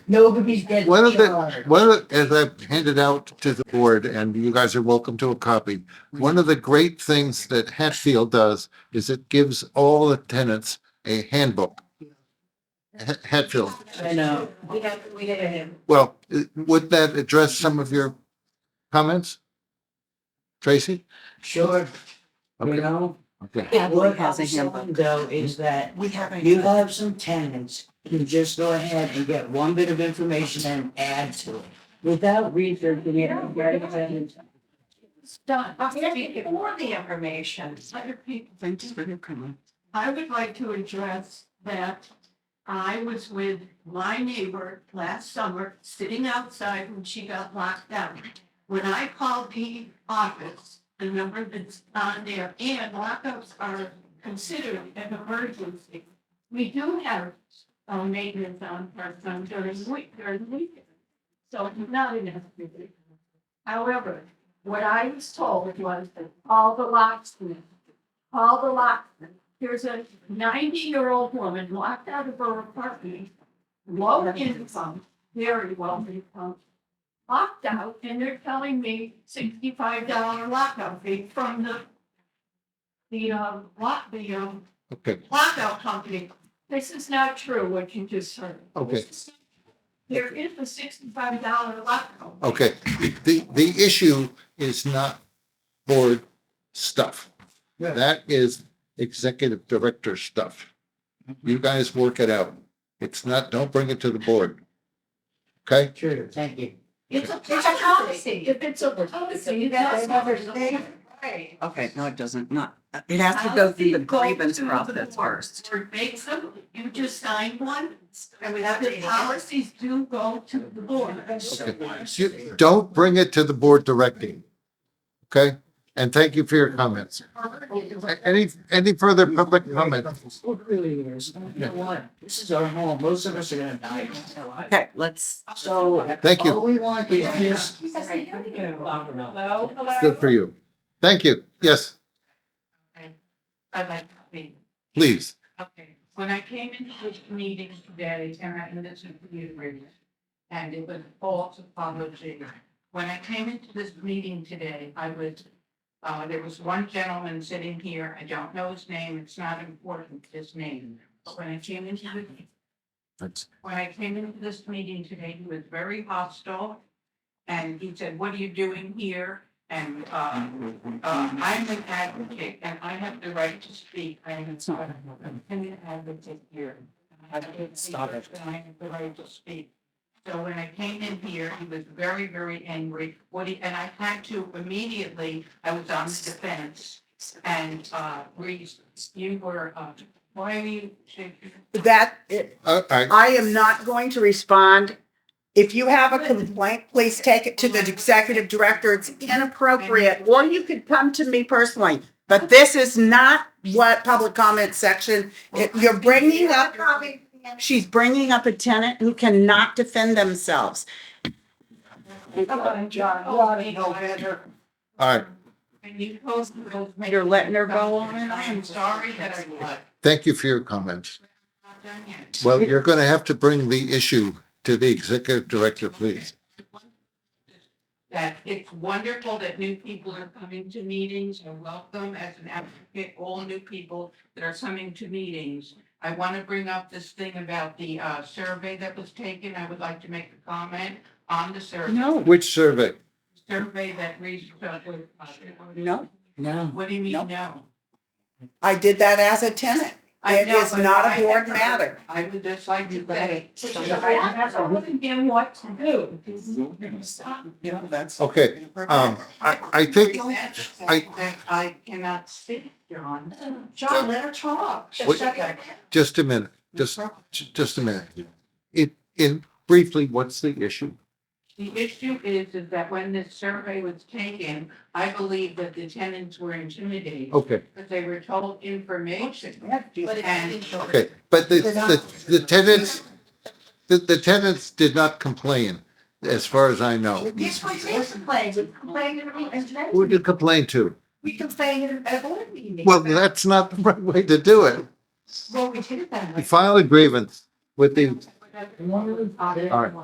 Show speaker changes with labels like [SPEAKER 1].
[SPEAKER 1] Nobody's dead.
[SPEAKER 2] One of the,
[SPEAKER 1] charred.
[SPEAKER 2] one of the, as I've handed out to the board, and you guys are welcome to a copy, one of the great things that Hatfield does is it gives all the tenants a handbook. Ha- Hatfield,
[SPEAKER 1] I know.
[SPEAKER 3] We have, we had him.
[SPEAKER 2] well, i- would that address some of your comments? Tracy?
[SPEAKER 1] Sure. You
[SPEAKER 2] Okay.
[SPEAKER 1] know,
[SPEAKER 2] Okay.
[SPEAKER 3] Yeah,
[SPEAKER 1] what
[SPEAKER 3] has a
[SPEAKER 1] I'm saying
[SPEAKER 3] handbook.
[SPEAKER 1] though is that
[SPEAKER 3] We have a.
[SPEAKER 1] you have some tenants who just go ahead and get one bit of information and add to it without researching it. regarding tenants.
[SPEAKER 3] Done. For the information,
[SPEAKER 4] Other people,
[SPEAKER 3] thanks for your comment.
[SPEAKER 4] I would like to address that I was with my neighbor last summer, sitting outside when she got locked out. When I called the office, the number that's on there, and lockups are considered an emergency. We do have uh, maintenance on part-time during week, during weekend. So it's not an emergency. However, what I was told was that all the locksmiths, all the locksmiths there's a ninety-year-old woman locked out of her apartment, low income, very low income, locked out, and they're telling me sixty-five dollar lockout fee from the, the, um, lock, the, um,
[SPEAKER 2] Okay,
[SPEAKER 4] lockout company. This is not true, what you just heard.
[SPEAKER 2] okay.
[SPEAKER 4] There is a sixty-five dollar lockout.
[SPEAKER 2] Okay, the, the issue is not board stuff.
[SPEAKER 1] Yeah.
[SPEAKER 2] That is executive director stuff. You guys work it out. It's not, don't bring it to the board. Okay?
[SPEAKER 1] True, thank you.
[SPEAKER 4] It's a
[SPEAKER 3] It's a policy.
[SPEAKER 4] policy. If it's a policy,
[SPEAKER 3] You guys
[SPEAKER 4] that's
[SPEAKER 3] never
[SPEAKER 4] never
[SPEAKER 3] say.
[SPEAKER 4] Right.
[SPEAKER 5] Okay, no, it doesn't, not, it has to go through the grievance process first.
[SPEAKER 4] Or makes them, you just sign one, and we have the policies do go to the board.
[SPEAKER 2] You- Don't bring it to the board directing. Okay? And thank you for your comments. A- Any, any further public comment?
[SPEAKER 1] It really is. You know what? This is our home. Most of us are gonna die.
[SPEAKER 5] Okay, let's,
[SPEAKER 1] So.
[SPEAKER 2] Thank you.
[SPEAKER 1] All we want is just.
[SPEAKER 4] Hello, hello.
[SPEAKER 2] Good for you. Thank you. Yes,
[SPEAKER 4] I'd like to be-
[SPEAKER 2] please.
[SPEAKER 4] Okay, when I came into this meeting today, and I listened to the agreement, and it was false apology. When I came into this meeting today, I was, uh, there was one gentleman sitting here, I don't know his name, it's not important, his name. But when I came into the, when I came into this meeting today, he was very hostile. And he said, what are you doing here? And, uh, uh, I'm an advocate and I have the right to speak. I am an independent advocate here. I have
[SPEAKER 1] Stop it.
[SPEAKER 4] And I have the right to speak. So when I came in here, he was very, very angry. What he, and I had to immediately, I was on the defense. And, uh, Reese, you were, uh, why are you shaking?
[SPEAKER 6] that,
[SPEAKER 2] Uh, All right.
[SPEAKER 6] I am not going to respond. If you have a complaint, please take it to the executive director. It's inappropriate, or you could come to me personally. But this is not what public comment section, it- you're bringing up, she's bringing up a tenant who cannot defend themselves.
[SPEAKER 4] Come on, John, you ought to know better.
[SPEAKER 2] All right.
[SPEAKER 4] And you told me those.
[SPEAKER 6] You're letting her go on and on.
[SPEAKER 4] I'm sorry that I was
[SPEAKER 2] Thank you for your comments.
[SPEAKER 4] not done yet.
[SPEAKER 2] Well, you're going to have to bring the issue to the executive director, please.
[SPEAKER 4] That it's wonderful that new people are coming to meetings. I welcome as an advocate, all new people that are coming to meetings. I want to bring up this thing about the uh, survey that was taken. I would like to make a comment on the survey.
[SPEAKER 2] Which survey?
[SPEAKER 4] Survey that Reese took with. uh,
[SPEAKER 6] No,
[SPEAKER 1] No.
[SPEAKER 4] What do you mean,
[SPEAKER 6] Nope.
[SPEAKER 4] no?
[SPEAKER 6] I did that as a tenant.
[SPEAKER 4] I
[SPEAKER 6] It
[SPEAKER 4] know,
[SPEAKER 6] is
[SPEAKER 4] but
[SPEAKER 6] not
[SPEAKER 4] I-
[SPEAKER 6] a board matter.
[SPEAKER 4] I would just like to say.
[SPEAKER 3] Stop.
[SPEAKER 4] I told him what to do. Stop.
[SPEAKER 2] Okay, um, I, I think, I-
[SPEAKER 4] That I cannot speak, John. John, let her talk.
[SPEAKER 2] Wait. just a minute, just, just a minute. It, in briefly, what's the issue?
[SPEAKER 4] The issue is, is that when this survey was taken, I believe that the tenants were intimidated,
[SPEAKER 2] Okay,
[SPEAKER 4] because they were told information.
[SPEAKER 3] But it's.
[SPEAKER 2] okay, but the, the, the tenants, the, the tenants did not complain, as far as I know.
[SPEAKER 3] Yes, we did complain, we complained at a meeting,
[SPEAKER 2] Who did you complain to?
[SPEAKER 3] we complained at a board meeting.
[SPEAKER 2] Well, that's not the right way to do it.
[SPEAKER 3] Well, we did it that way.
[SPEAKER 2] File a grievance with the
[SPEAKER 1] All
[SPEAKER 2] right.